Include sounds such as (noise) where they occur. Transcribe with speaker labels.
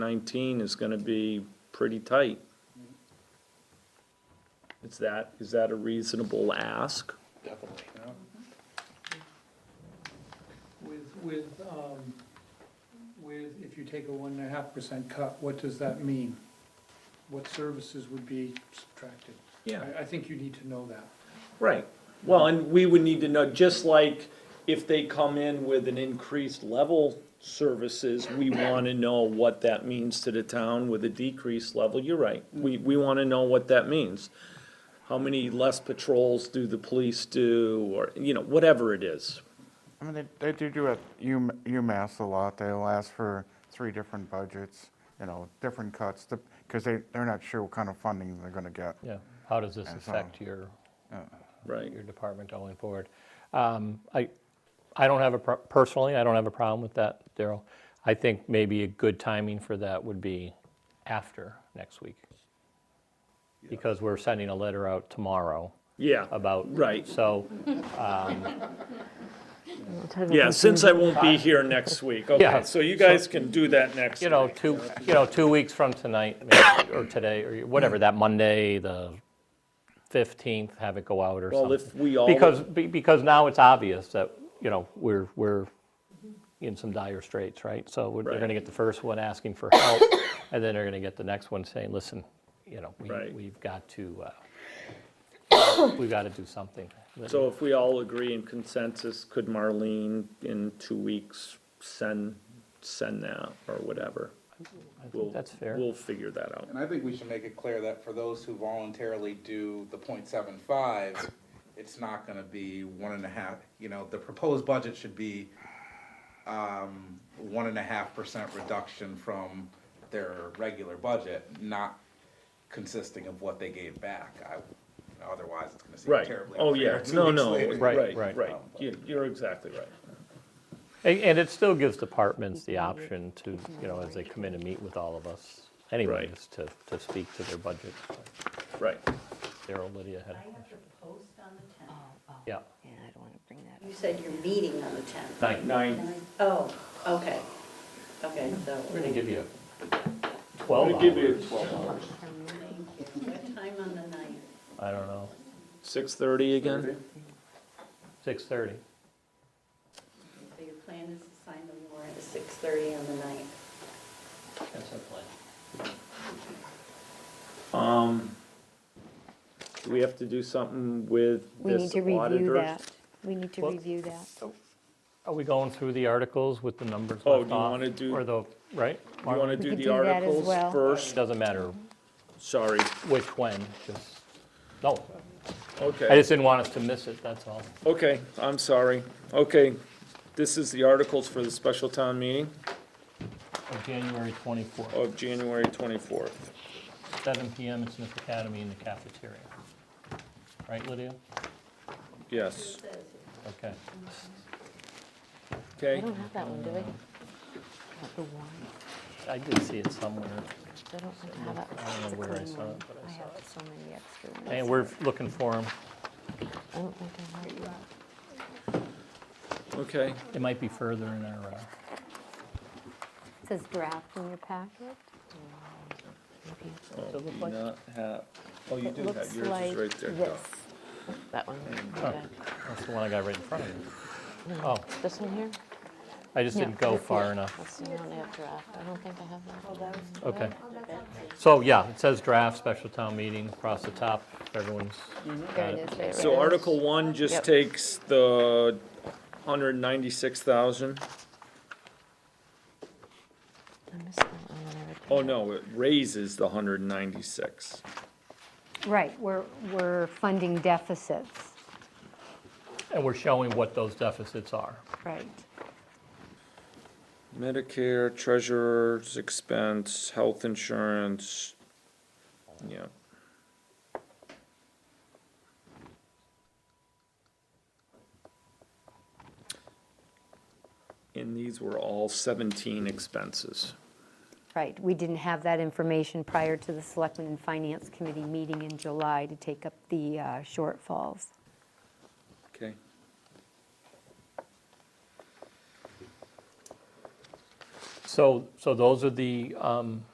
Speaker 1: 19 is going to be pretty tight. Is that, is that a reasonable ask?
Speaker 2: Definitely.
Speaker 3: With, with, um, with, if you take a one and a half percent cut, what does that mean? What services would be subtracted?
Speaker 1: Yeah.
Speaker 3: I, I think you need to know that.
Speaker 1: Right. Well, and we would need to know, just like if they come in with an increased level services, we want to know what that means to the town with a decreased level. You're right. We, we want to know what that means. How many less patrols do the police do, or, you know, whatever it is.
Speaker 4: I mean, they, they do do at U- UMass a lot. They'll ask for three different budgets, you know, different cuts, because they, they're not sure what kind of funding they're gonna get.
Speaker 5: Yeah, how does this
Speaker 4: And so-
Speaker 5: affect your,
Speaker 1: Right.
Speaker 5: your department going forward? Um, I, I don't have a, pro- personally, I don't have a problem with that, Daryl. I think maybe a good timing for that would be after next week. Because we're sending a letter out tomorrow
Speaker 1: Yeah.
Speaker 5: about.
Speaker 1: Right.
Speaker 5: So,
Speaker 1: Yeah, since I won't be here next week, okay,
Speaker 5: Yeah.
Speaker 1: so you guys can do that next
Speaker 5: you know,
Speaker 1: week.
Speaker 5: two, you know, two weeks from tonight, maybe, or today, or whatever, that Monday, the 15th, have it go out or something.
Speaker 1: Well, if we all,
Speaker 5: Because, be- because now it's obvious that, you know, we're, we're in some dire straits, right? So we're- they're
Speaker 1: Right.
Speaker 5: going to get the first one asking for help, (coughs) and then they're going to get the next one saying, listen, you know, we-
Speaker 1: Right.
Speaker 5: we've got to, uh, (coughs) we've got to do something.
Speaker 1: so if we all agree in consensus, could Marlene in two weeks send, send that or whatever?
Speaker 5: I think
Speaker 1: We'll-
Speaker 5: That's fair.
Speaker 1: We'll figure that out.
Speaker 2: And I think we should make it clear that for those who voluntarily do the point seven five, it's not gonna be one and a half, you know, the proposed budget should be um, one and a half percent reduction from their regular budget, not consisting of what they gave back. I, otherwise, it's gonna seem
Speaker 1: Right,
Speaker 2: terribly
Speaker 1: oh,
Speaker 2: unfair.
Speaker 1: yeah,
Speaker 2: two
Speaker 1: no,
Speaker 2: weeks
Speaker 1: no,
Speaker 2: later.
Speaker 5: Right,
Speaker 1: right,
Speaker 5: right.
Speaker 1: right, You- you're exactly right.
Speaker 5: And, and it still gives departments the option to, you know, as they come in and meet with all of us, anyways, to, to speak to their budget.
Speaker 1: Right,
Speaker 5: Daryl, Lydia had,
Speaker 6: I have to post on the tenth.
Speaker 5: yeah.
Speaker 7: Yeah, I don't want to bring that
Speaker 6: You said you're meeting on the tenth.
Speaker 5: Nine.
Speaker 1: nine,
Speaker 6: Oh, okay, okay, so.
Speaker 5: We're going to give you
Speaker 1: I'm
Speaker 5: 12
Speaker 1: gonna give you
Speaker 5: hours.
Speaker 1: twelve hours.
Speaker 6: What time on the ninth?
Speaker 5: I don't know,
Speaker 1: Six thirty again?
Speaker 5: 6:30.
Speaker 6: So your plan is to sign the warrant at six thirty on the ninth.
Speaker 5: That's our plan.
Speaker 1: Um, do we have to do something with
Speaker 7: We need
Speaker 1: this
Speaker 7: to review
Speaker 1: auditor?
Speaker 7: that. We need to
Speaker 5: Well-
Speaker 7: review that.
Speaker 5: Are we going through the articles with the numbers left
Speaker 1: Oh,
Speaker 5: off?
Speaker 1: do you wanna do-
Speaker 5: Uh, Or the, right?
Speaker 1: You wanna do
Speaker 7: could
Speaker 1: the
Speaker 7: do that as
Speaker 1: articles
Speaker 7: well.
Speaker 1: first?
Speaker 5: Doesn't matter
Speaker 1: Sorry,
Speaker 5: which, when, just, no.
Speaker 1: okay.
Speaker 5: I just didn't want us to miss it, that's all.
Speaker 1: Okay, I'm sorry. Okay, this is the articles for the special town meeting
Speaker 5: On January 24th,
Speaker 1: of January 24th.
Speaker 5: seven PM at Smith Academy in the cafeteria. Right, Lydia?
Speaker 1: Yes,
Speaker 5: Okay.
Speaker 7: I
Speaker 1: okay,
Speaker 7: don't have that one, do I? Not The warrant.
Speaker 5: I did see it somewhere.
Speaker 7: I don't think I have that.
Speaker 5: I don't know
Speaker 7: It's a
Speaker 5: where I
Speaker 7: clean
Speaker 5: saw
Speaker 7: one.
Speaker 5: it, but I
Speaker 7: I
Speaker 5: saw
Speaker 7: have so many extra ones.
Speaker 5: And we're looking for them.
Speaker 7: I don't think I have that.
Speaker 1: okay.
Speaker 5: It might be further in our, uh,
Speaker 7: It says draft in your packet. Maybe.
Speaker 5: does it look
Speaker 1: Oh, Do
Speaker 5: like?
Speaker 1: not have, oh, you
Speaker 7: It
Speaker 1: do have,
Speaker 7: looks
Speaker 1: yours is
Speaker 7: like
Speaker 1: right there.
Speaker 7: this.
Speaker 1: Doc.
Speaker 7: That one. Okay.
Speaker 5: That's the one I got right in front of me. Oh,
Speaker 7: This one here?
Speaker 5: I just
Speaker 7: No,
Speaker 5: didn't go
Speaker 7: that's
Speaker 5: far
Speaker 7: it.
Speaker 5: enough.
Speaker 7: That's the one I have draft. I don't think I have that.
Speaker 5: Okay. So, yeah, it says draft, special town meeting across the top, everyone's,
Speaker 7: There it is. right
Speaker 1: So
Speaker 7: there.
Speaker 1: Article 1 just
Speaker 7: Yep.
Speaker 1: takes the 196,000.
Speaker 7: I missed that one when I read
Speaker 1: Oh,
Speaker 7: that.
Speaker 1: no, it raises the 196.
Speaker 8: Right, we're, we're funding deficits,
Speaker 5: and we're showing what those deficits are.
Speaker 8: right.
Speaker 1: Medicare, treasurer's expense, health insurance, yeah. And these were all seventeen expenses.
Speaker 8: Right, we didn't have that information prior to the Selectmen and Finance Committee meeting in July to take up the uh, shortfalls.
Speaker 1: Okay.
Speaker 5: So, so those are the, um,